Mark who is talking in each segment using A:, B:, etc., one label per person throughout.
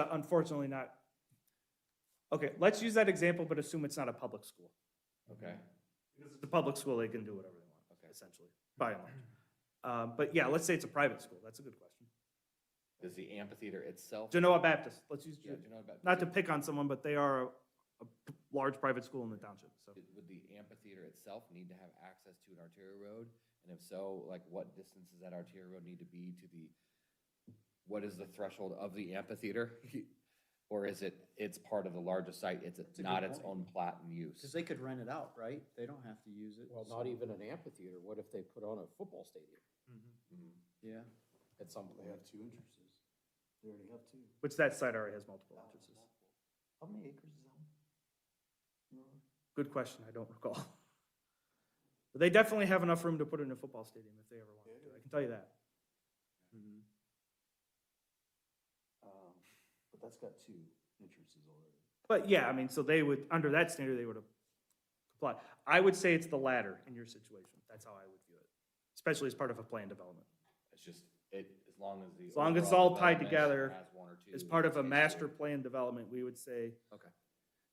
A: Uh, Unfortunately not. Okay, let's use that example, but assume it's not a public school. Mm-hmm.
B: Okay,
A: Because it's a public school, they can do whatever they want,
B: Okay.
A: essentially, by and large. Um, But yeah, let's say it's a private school. That's a good question.
B: does the amphitheater itself?
A: Genoa Baptist, let's use,
B: Yeah, do you know about-
A: not to pick on someone, but they are a a p- large private school in the township, so.
B: Did- Would the amphitheater itself need to have access to an arterial road? And if so, like what distance does that arterial road need to be to the, what is the threshold of the amphitheater? Or is it, it's part of the larger site, it's
C: a good
B: not its
C: point.
B: own plat and use?
C: Because they could rent it out, right? They don't have to use it.
D: Well,
C: so-
D: not even an amphitheater, what if they put on a football stadium
B: Mhm.
C: Yeah.
D: at some
E: They
D: point?
E: have two entrances. They already have two.
A: Which that site already has multiple entrances.
E: How many acres is that?
A: Good question, I don't recall. But they definitely have enough room to put in a football stadium if they ever wanted to, I can tell you that.
C: Mhm.
E: Um, But that's got two entrances already.
A: But yeah, I mean, so they would, under that standard, they would have complied. I would say it's the latter in your situation. That's how I would view it, especially as part of a plan development.
B: It's just, it, as long as the.
A: As long as it's
B: overall
A: all tied
B: development
A: together,
B: has one or two
A: As part of a
B: spaces.
A: master plan development, we would say.
B: Okay.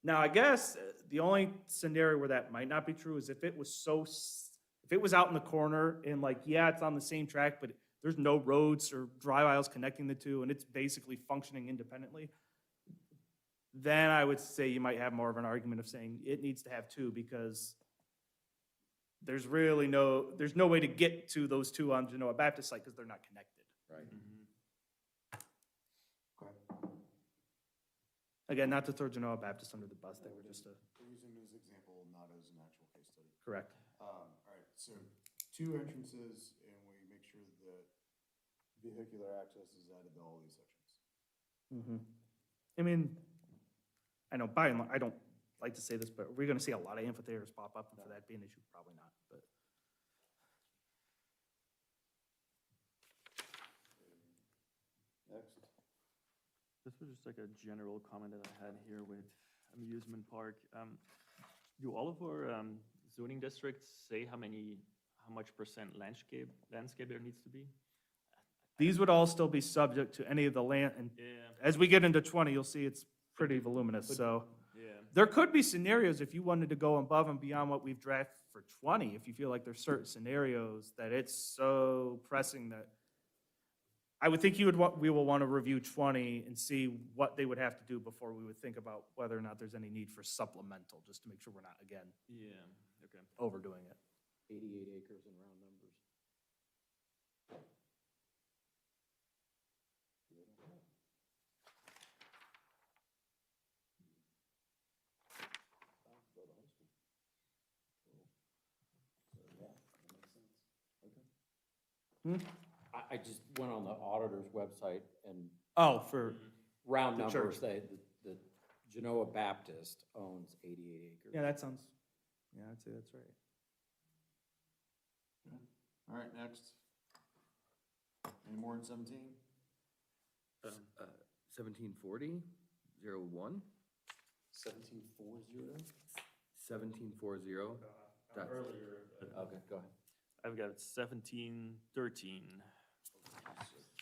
A: Now, I guess uh, the only scenario where that might not be true is if it was so, s- if it was out in the corner and like, yeah, it's on the same track, but there's no roads or drive aisles connecting the two and it's basically functioning independently, then I would say you might have more of an argument of saying it needs to have two because there's really no, there's no way to get to those two on Genoa Baptist site because they're not connected.
B: Right.
A: Again, not to throw Genoa Baptist under the bus, they were just a,
E: We're using it as an example, not as an actual case study.
A: correct.
E: Um, all right, so two entrances and we make sure that vehicular access is added to all these sections.
A: Mhm. I mean, I know by and large, I don't like to say this, but we're gonna see a lot of amphitheaters pop up, and for that being an issue, probably not, but.
E: Next.
F: This was just like a general comment that I had here with amusement park. Um, do all of our um, zoning districts say how many, how much percent landscape, landscape there needs to be?
A: These would all still be subject to any of the land, and
F: Yeah,
A: as we get into twenty, you'll see it's pretty voluminous, so.
F: yeah.
A: There could be scenarios if you wanted to go above and beyond what we've drafted for twenty, if you feel like there's certain scenarios that it's so pressing that. I would think you would want, we will want to review twenty and see what they would have to do before we would think about whether or not there's any need for supplemental, just to make sure we're not, again,
F: Yeah, okay.
A: overdoing it.
D: Eighty-eight acres in round numbers. I, I just went on the auditor's website and
A: Oh, for,
D: round
A: The
D: numbers,
A: church.
D: they, the, the Genoa Baptist owns eighty-eight acres.
A: yeah, that sounds, yeah, I'd say that's right.
E: All right, next. Any more than seventeen?
B: Seventeen forty, zero one,
E: Seventeen four zero?
B: seventeen four zero. Earlier. Okay, go ahead.
F: I've got seventeen thirteen.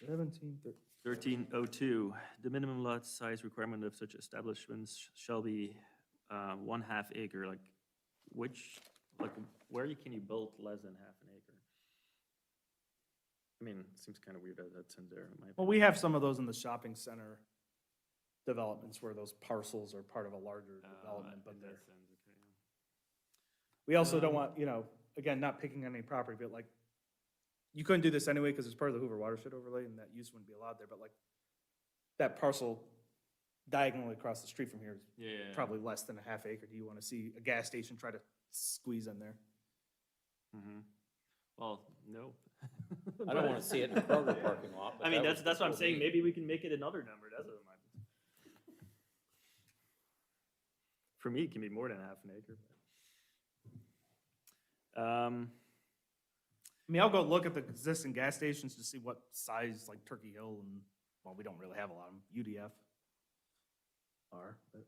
A: Seventeen thirty.
F: 1302, the minimum lot size requirement of such establishments sh- shall be uh, one half acre, like which, like where you- can you build less than half an acre? I mean, it seems kind of weird that that's in there, in my
A: Well, we have some of those in the shopping center developments where those parcels are part of a larger
F: opinion. Uh,
A: development, but
F: in that
A: they're.
F: sense, okay, yeah.
A: We also don't
F: Um,
A: want, you know, again, not picking on any property, but like, you couldn't do this anyway because it's part of the Hoover watershed overlay and that use wouldn't be allowed there, but like, that parcel diagonally across the street from here is
F: Yeah, yeah, yeah.
A: probably less than a half acre. Do you want to see a gas station try to squeeze in there?
F: Mhm. Well, no.
D: I don't wanna see it in a Kroger parking lot, but
F: I mean,
D: that
F: that's,
D: was
F: that's what I'm
D: before me.
F: saying, maybe we can make it another number, that's what I'm. For me, it can be more than half an acre. but- Um,
A: I mean, I'll go look at the existing gas stations to see what size, like Turkey Hill and, well, we don't really have a lot of them, UDF are, but.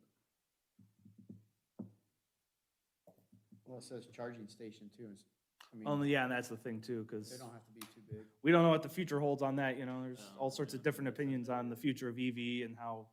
C: Well, it says charging station too. and s- I
F: Mm.
C: mean,
A: Only, yeah, and that's the thing too, because.
C: they don't have to be too big.
A: we don't know what the future holds on that, you know, there's
F: No,
A: all sorts
F: yeah,
A: of different
F: that's
A: opinions on the future of EV and how